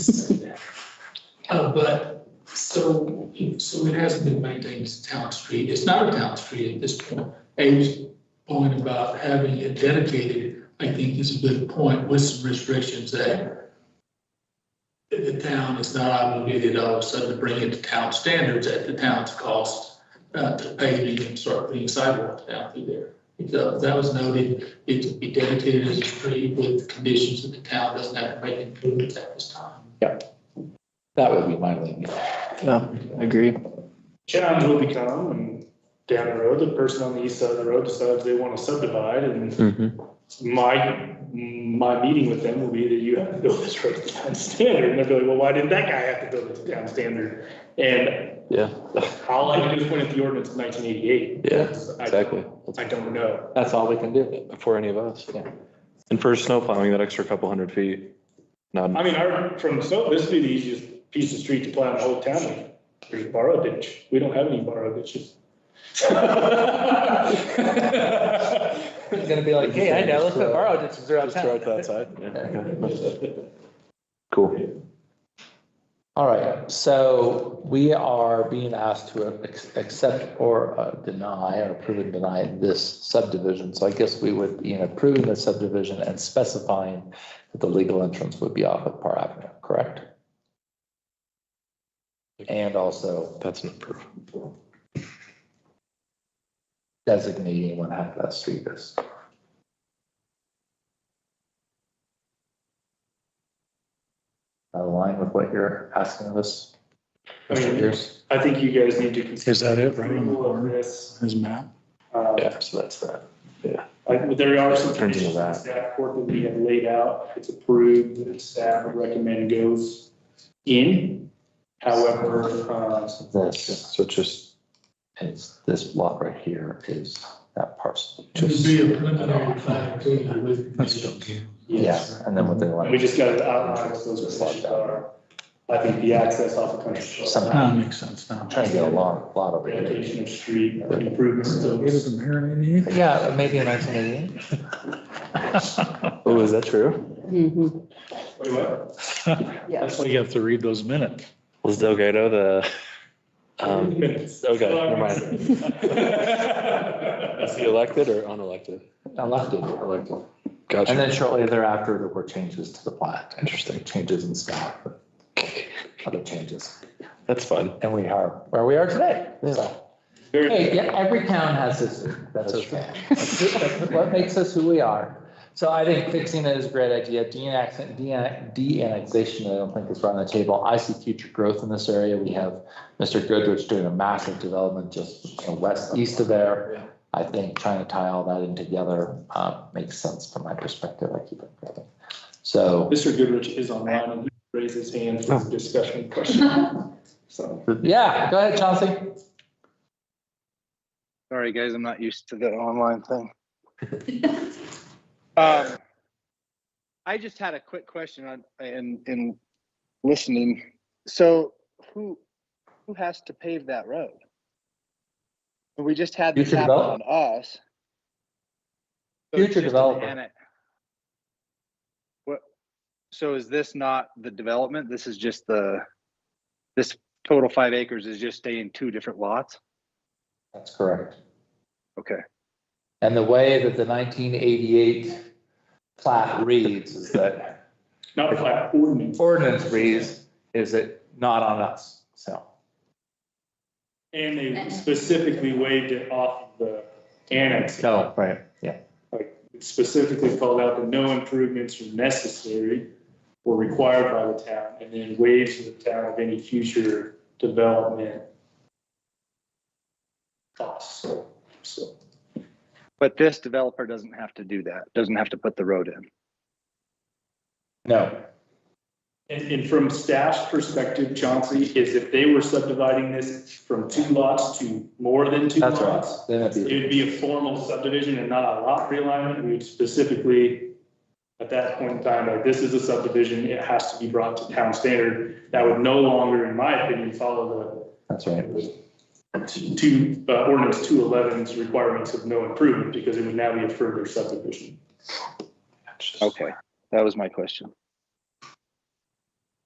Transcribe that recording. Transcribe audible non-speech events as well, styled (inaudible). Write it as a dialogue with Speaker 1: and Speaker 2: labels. Speaker 1: Uh, but, so, so it hasn't been maintained as a town street, it's not a town street at this point. Abe's point about having it dedicated, I think is a good point with some restrictions that the town is not obligated all of a sudden to bring it to town standards at the town's cost, uh, to paving and start putting sidewalks down through there. So that was noted, it to be dedicated as a street with conditions that the town doesn't have to make improvements at this time.
Speaker 2: That would be my lean.
Speaker 3: Yeah, I agree.
Speaker 4: challenge will become when down the road, the person on the east side of the road decides they want to subdivide and
Speaker 2: Mm-hmm.
Speaker 4: my, my meeting with them will be that you have to build this road to town standard. And they'll be like, well, why didn't that guy have to build it to town standard? And
Speaker 5: Yeah,
Speaker 4: all I can do is point at the ordinance of nineteen eighty-eight.
Speaker 5: yeah, exactly.
Speaker 4: I don't know.
Speaker 2: That's all we can do.
Speaker 5: For any of us.
Speaker 2: Yeah.
Speaker 5: And for snow plowing, that extra couple hundred feet, not,
Speaker 4: I mean, our, from, so this would be the easiest piece of street to plow in the whole town. with. There's borrow ditch. We don't have any borrow ditches. (laughs)
Speaker 3: He's gonna be like, hey, I know, let's put borrow ditches around
Speaker 5: just throw it to
Speaker 3: town.
Speaker 5: that side. Yeah, okay. (laughs) Cool.
Speaker 2: All right, so we are being asked to ac- accept or uh, deny or approve and deny this subdivision. So I guess we would be in approving the subdivision and specifying that the legal entrance would be off of Par Avenue, correct? And also
Speaker 5: That's an approve.
Speaker 2: designating what half of that street is. Align with what you're asking of us?
Speaker 4: I mean,
Speaker 2: Here's-
Speaker 4: I think you guys need to consider.
Speaker 6: Is that it, right on the
Speaker 4: approval of
Speaker 6: board,
Speaker 4: this.
Speaker 6: his map?
Speaker 4: Uh,
Speaker 5: Yeah, so that's that.
Speaker 4: I- There are some
Speaker 5: Turns into
Speaker 4: conditions
Speaker 5: that.
Speaker 4: that staff work that we have laid out. If It's approved, then staff would recommend goes in. However, uh,
Speaker 2: This,
Speaker 5: So just,
Speaker 2: is this block right here is that parcel.
Speaker 1: It would be a preliminary plan, including with conditions.
Speaker 4: yes,
Speaker 2: Yeah, and then what they
Speaker 4: we
Speaker 2: want,
Speaker 4: just got to outline what those conditions are. I think the access off the country. club,
Speaker 2: somehow,
Speaker 6: That makes sense now.
Speaker 2: trying to get a long lot over here.
Speaker 4: Dedication of street improvements. to-
Speaker 2: Yeah, maybe in nineteen eighty. (laughs)
Speaker 5: oh, is that true?
Speaker 7: Mhm.
Speaker 4: Wait, what?
Speaker 6: That's why you have to read those minutes.
Speaker 5: Was Delgado the, um,
Speaker 4: Minutes.
Speaker 5: okay, never mind.
Speaker 4: (laughs)
Speaker 5: Is he elected or unelected?
Speaker 2: Elected, elected. And
Speaker 5: Gotcha.
Speaker 2: then shortly thereafter, there were changes to the plat.
Speaker 5: Interesting.
Speaker 2: Changes in staff, other changes.
Speaker 5: That's fun.
Speaker 2: And we are where we are today. So,
Speaker 4: Very-
Speaker 2: hey, yeah, every town has this, that's
Speaker 5: That's
Speaker 2: okay. That's What makes us who we are. So I think fixing it is a great idea. De-annex- De de-annexation, I don't think is right on the table. I see future growth in this area. We have Mr. Goodrich doing a massive development just you know, west, east of there. I think trying to tie all that in together uh, makes sense from my perspective. I keep it going. So,
Speaker 4: Mr. Goodrich is online and he raised his hand for
Speaker 2: Oh.
Speaker 4: discussion question. So,
Speaker 2: yeah, go ahead, Chauncey.
Speaker 8: Sorry, guys, I'm not used to the online thing. um, I just had a quick question on in in listening. So who who has to pave that road? We just had this
Speaker 2: Future
Speaker 8: happen on
Speaker 2: development.
Speaker 8: us. So it's
Speaker 2: Future
Speaker 8: just an
Speaker 2: development.
Speaker 8: annex. What? So is this not the development? This is just the this total five acres is just staying two different lots.
Speaker 2: That's correct.
Speaker 8: Okay.
Speaker 2: And the way that the nineteen eighty-eight plat reads is that
Speaker 4: not by ordinance.
Speaker 2: ordinance reads, is it not on us? So,
Speaker 4: And they specifically waived it off of the annex.
Speaker 2: no, Oh, right, yeah.
Speaker 4: It Specifically called out that no improvements are necessary or required by the town, and then waived to the town of any future development costs. So,
Speaker 8: But this developer doesn't have to do that, doesn't have to put the road in.
Speaker 2: No,
Speaker 4: and, and from staff's perspective, Chauncey, is if they were subdividing this from two lots to more than two
Speaker 2: that's right.
Speaker 4: lots,
Speaker 2: Then it'd
Speaker 4: It
Speaker 2: be,
Speaker 4: would be a formal subdivision and not a lot realignment. We would specifically, at that point in time, like, this is a subdivision, it has to be brought to town standard. That would no longer, in my opinion, follow
Speaker 2: that's right.
Speaker 4: the two, uh, ordinance 211's requirements of no improvement because it would now be a further subdivision.
Speaker 8: Okay, that was my question.